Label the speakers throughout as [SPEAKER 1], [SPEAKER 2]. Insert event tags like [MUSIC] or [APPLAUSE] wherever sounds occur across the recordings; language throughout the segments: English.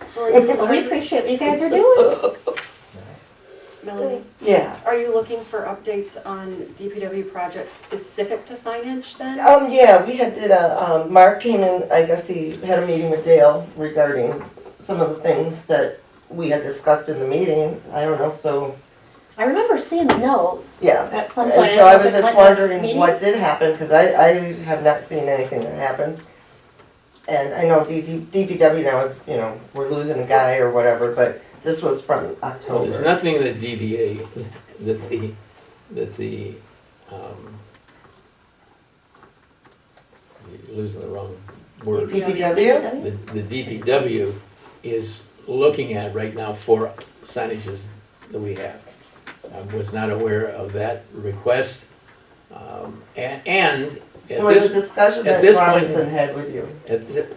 [SPEAKER 1] for
[SPEAKER 2] Well, we appreciate what you guys are doing.
[SPEAKER 1] Melanie,
[SPEAKER 3] Yeah.
[SPEAKER 1] are you looking for updates on DPW projects specific to signage then?
[SPEAKER 3] Um, yeah, we had did a, um, Mark came in, I guess he had a meeting with Dale regarding some of the things that we had discussed in the meeting. I don't know, so,
[SPEAKER 2] I remember seeing the notes
[SPEAKER 3] Yeah.
[SPEAKER 2] at some point.
[SPEAKER 3] and so I
[SPEAKER 2] don't know if
[SPEAKER 3] was
[SPEAKER 2] it went
[SPEAKER 3] just
[SPEAKER 2] to
[SPEAKER 3] wondering
[SPEAKER 2] meeting.
[SPEAKER 3] what did happen, cause I, I have not seen anything that happened. And I know DT, DPW now is, you know, we're losing a guy or whatever, but this was from
[SPEAKER 4] Well, There's
[SPEAKER 3] October.
[SPEAKER 4] nothing that DDA, that the, that the, um, you're losing the wrong word.
[SPEAKER 3] DPW?
[SPEAKER 4] The, the DPW is looking at right now for signages that we have. I was not aware of that request. Um, and, and at
[SPEAKER 3] There was a
[SPEAKER 4] this,
[SPEAKER 3] discussion
[SPEAKER 4] at
[SPEAKER 3] that
[SPEAKER 4] this point-
[SPEAKER 3] Robinson had with you.
[SPEAKER 4] at thi-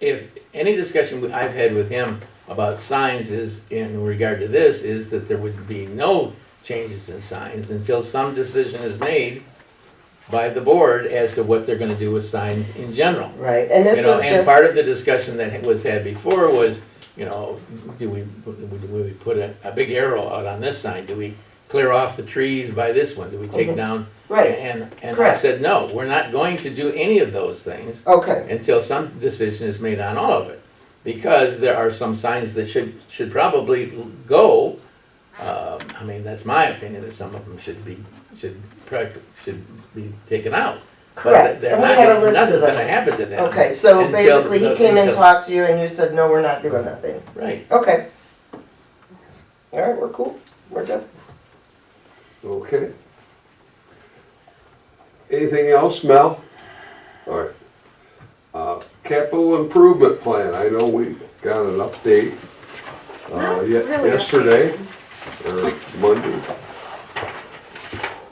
[SPEAKER 4] if, any discussion I've had with him about signs is, in regard to this, is that there would be no changes in signs until some decision is made by the board as to what they're gonna do with signs in general.
[SPEAKER 3] Right, and this
[SPEAKER 4] You know,
[SPEAKER 3] was
[SPEAKER 4] and
[SPEAKER 3] just,
[SPEAKER 4] part of the discussion that was had before was, you know, do we, do we put a, a big arrow out on this sign? Do we clear off the trees by this one? Do we take
[SPEAKER 3] Mhm.
[SPEAKER 4] down?
[SPEAKER 3] right,
[SPEAKER 4] And, and I
[SPEAKER 3] Correct.
[SPEAKER 4] said, no, we're not going to do any of those things
[SPEAKER 3] okay,
[SPEAKER 4] until some decision is made on all of it. Because there are some signs that should, should probably go, um, I mean, that's my opinion, that some of them should be, should, prac- should be taken out. But
[SPEAKER 3] correct.
[SPEAKER 4] they're
[SPEAKER 3] And we
[SPEAKER 4] not
[SPEAKER 3] had a
[SPEAKER 4] gonna-
[SPEAKER 3] list of
[SPEAKER 4] Nothing's
[SPEAKER 3] those.
[SPEAKER 4] gonna happen to them.
[SPEAKER 3] Okay, so
[SPEAKER 4] until
[SPEAKER 3] basically, he
[SPEAKER 4] the-
[SPEAKER 3] came and
[SPEAKER 4] until-
[SPEAKER 3] talked to you and you said, no, we're not doing nothing.
[SPEAKER 4] Right,
[SPEAKER 3] Okay. All right, we're cool, we're done.
[SPEAKER 5] Okay. Anything else, Mel? All right. Uh, Capital improvement plan, I know we got an update
[SPEAKER 1] It's
[SPEAKER 5] uh,
[SPEAKER 1] not
[SPEAKER 5] ye-
[SPEAKER 1] really
[SPEAKER 5] yesterday
[SPEAKER 1] updated.
[SPEAKER 3] [LAUGHS]
[SPEAKER 5] or Monday.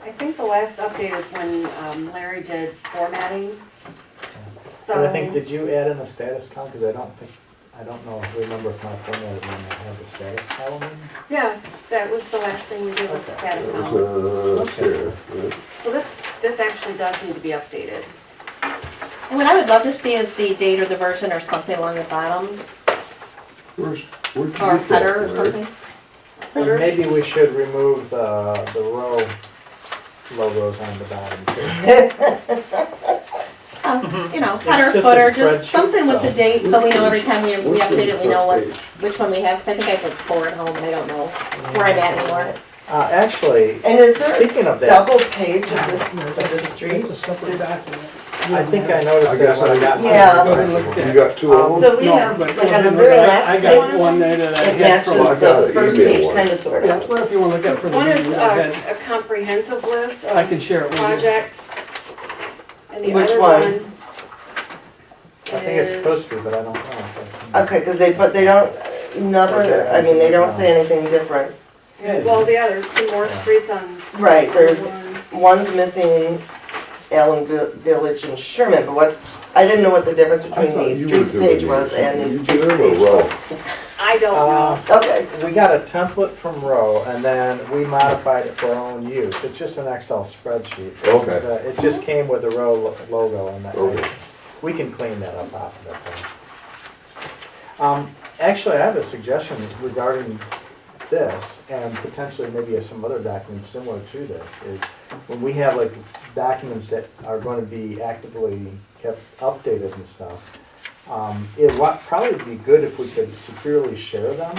[SPEAKER 1] I think the last update is when um, Larry did formatting.
[SPEAKER 6] And
[SPEAKER 1] So,
[SPEAKER 6] I think, did you add in the status column? Because I don't think, I don't know, remember if my formula is when I have the status column in.
[SPEAKER 1] yeah, that was the last thing we did was the status
[SPEAKER 5] That
[SPEAKER 1] column.
[SPEAKER 3] Oh,
[SPEAKER 5] was, uh,
[SPEAKER 6] Okay.
[SPEAKER 5] here, yeah.
[SPEAKER 1] So this, this actually does need to be updated.
[SPEAKER 2] And what I would love to see is the date or the version or something along the bottom,
[SPEAKER 5] Where's, where'd you
[SPEAKER 2] or a
[SPEAKER 5] get that,
[SPEAKER 2] header or
[SPEAKER 5] Larry?
[SPEAKER 2] something.
[SPEAKER 6] And
[SPEAKER 1] Header?
[SPEAKER 6] maybe we should remove the, the row logos on the bottom too.
[SPEAKER 3] [LAUGHS]
[SPEAKER 2] Uh, You know,
[SPEAKER 6] Oh. Mm-hmm. It's
[SPEAKER 2] header,
[SPEAKER 6] just a
[SPEAKER 2] footer, just
[SPEAKER 6] spreadsheet,
[SPEAKER 2] something with the
[SPEAKER 6] so-
[SPEAKER 2] date, so we know every time we we
[SPEAKER 5] What's
[SPEAKER 2] update it, we
[SPEAKER 5] the
[SPEAKER 2] know
[SPEAKER 5] front
[SPEAKER 2] what's, which one we have, because I think I put four at home, and I don't know where I'm at anymore.
[SPEAKER 6] Uh, actually,
[SPEAKER 3] And is there
[SPEAKER 6] speaking of
[SPEAKER 3] a
[SPEAKER 6] that,
[SPEAKER 3] double page of this, of the street?
[SPEAKER 6] I think I
[SPEAKER 5] I
[SPEAKER 6] noticed that
[SPEAKER 5] guess
[SPEAKER 6] when I
[SPEAKER 5] I-
[SPEAKER 6] got. my-
[SPEAKER 3] Yeah.
[SPEAKER 5] You got two of them?
[SPEAKER 3] So we have, like on the very
[SPEAKER 7] I
[SPEAKER 3] last page,
[SPEAKER 7] got one there that I
[SPEAKER 3] it
[SPEAKER 7] had
[SPEAKER 3] matches
[SPEAKER 7] from.
[SPEAKER 5] Well, I got
[SPEAKER 3] the
[SPEAKER 5] an
[SPEAKER 3] first
[SPEAKER 5] email
[SPEAKER 3] page
[SPEAKER 5] one.
[SPEAKER 3] kind of sort
[SPEAKER 7] Yeah,
[SPEAKER 3] of.
[SPEAKER 7] well, if you wanna look at it from the
[SPEAKER 1] One is
[SPEAKER 7] beginning,
[SPEAKER 3] uh,
[SPEAKER 7] I had-
[SPEAKER 1] a a comprehensive list
[SPEAKER 7] I
[SPEAKER 1] of
[SPEAKER 7] can share it with you.
[SPEAKER 1] projects. And the
[SPEAKER 3] Which
[SPEAKER 1] other
[SPEAKER 3] one?
[SPEAKER 1] one
[SPEAKER 6] I think it's
[SPEAKER 1] is-
[SPEAKER 6] supposed to, but I don't know. if that's-
[SPEAKER 3] Okay, because they put, they don't, another, I mean, they don't say anything different.
[SPEAKER 1] Yeah, Well, the other, some more
[SPEAKER 6] Yeah.
[SPEAKER 1] streets on.
[SPEAKER 3] Right, there's
[SPEAKER 1] one.
[SPEAKER 3] One's missing Allen Vi- Village and Sherman, but what's, I didn't know what the difference
[SPEAKER 5] I
[SPEAKER 3] between
[SPEAKER 5] thought
[SPEAKER 3] the
[SPEAKER 5] you were
[SPEAKER 3] streets
[SPEAKER 5] doing
[SPEAKER 3] page
[SPEAKER 5] these.
[SPEAKER 3] was and the
[SPEAKER 5] You
[SPEAKER 3] streets
[SPEAKER 5] did or
[SPEAKER 3] page
[SPEAKER 5] Ralph?
[SPEAKER 3] was.
[SPEAKER 1] I don't
[SPEAKER 6] Uh,
[SPEAKER 1] know.
[SPEAKER 3] Okay,
[SPEAKER 6] We got a template from Row, and then we modified it for our own use. It's just an Excel spreadsheet.
[SPEAKER 5] Okay.
[SPEAKER 6] Uh, It just came with the Row lo- logo on that.
[SPEAKER 5] Okay.
[SPEAKER 6] We can clean that up after that. thing. Um, Actually, I have a suggestion regarding this, and potentially maybe some other documents similar to this, is when we have like documents that are going to be actively kept updated and stuff, um, it would probably be good if we could securely share them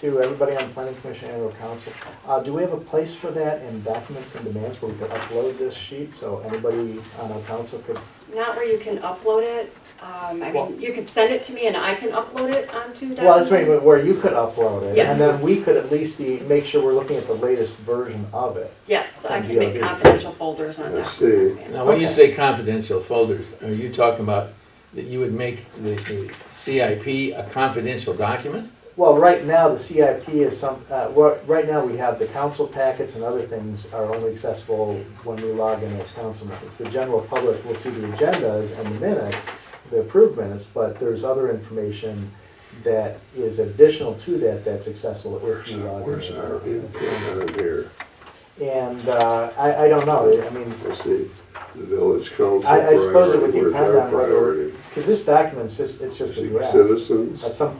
[SPEAKER 6] to everybody on the planning commission and or council. Uh, do we have a place for that in documents and demands where we could upload this sheet so anybody on our council could?
[SPEAKER 1] Not where you can upload it. Um, I
[SPEAKER 6] Well-
[SPEAKER 1] mean, you could send it to me and I can upload it onto.
[SPEAKER 6] Well, that's
[SPEAKER 1] Document.
[SPEAKER 6] right, where you could upload it
[SPEAKER 1] Yes.
[SPEAKER 6] and then we could at least be, make sure we're looking at the latest version of it.
[SPEAKER 1] Yes, I
[SPEAKER 6] From
[SPEAKER 1] can make
[SPEAKER 6] DRB.
[SPEAKER 1] confidential folders on
[SPEAKER 5] I
[SPEAKER 1] that.
[SPEAKER 5] see.
[SPEAKER 4] now, when you
[SPEAKER 6] Okay.
[SPEAKER 4] say confidential folders, are you talking about that you would make the, the CIP a confidential document?
[SPEAKER 6] Well, right now, the CIP is some, uh, well, right now, we have the council packets and other things are only accessible when we log in as council members. The general public will see the agendas and the minutes, the approved minutes, but there's other information that is additional to that that's accessible if
[SPEAKER 5] Where's
[SPEAKER 6] you
[SPEAKER 5] our,
[SPEAKER 6] log in.
[SPEAKER 5] where's
[SPEAKER 6] as
[SPEAKER 5] our
[SPEAKER 6] our-
[SPEAKER 5] input on here?
[SPEAKER 6] And, uh, I, I don't know, I mean,
[SPEAKER 5] Let's see, the village council.
[SPEAKER 6] I, I suppose it would
[SPEAKER 5] priority,
[SPEAKER 6] depend
[SPEAKER 5] where's our
[SPEAKER 6] on whether,
[SPEAKER 5] priority?
[SPEAKER 6] because this document's just, it's just a draft.
[SPEAKER 5] Citizens.
[SPEAKER 6] At some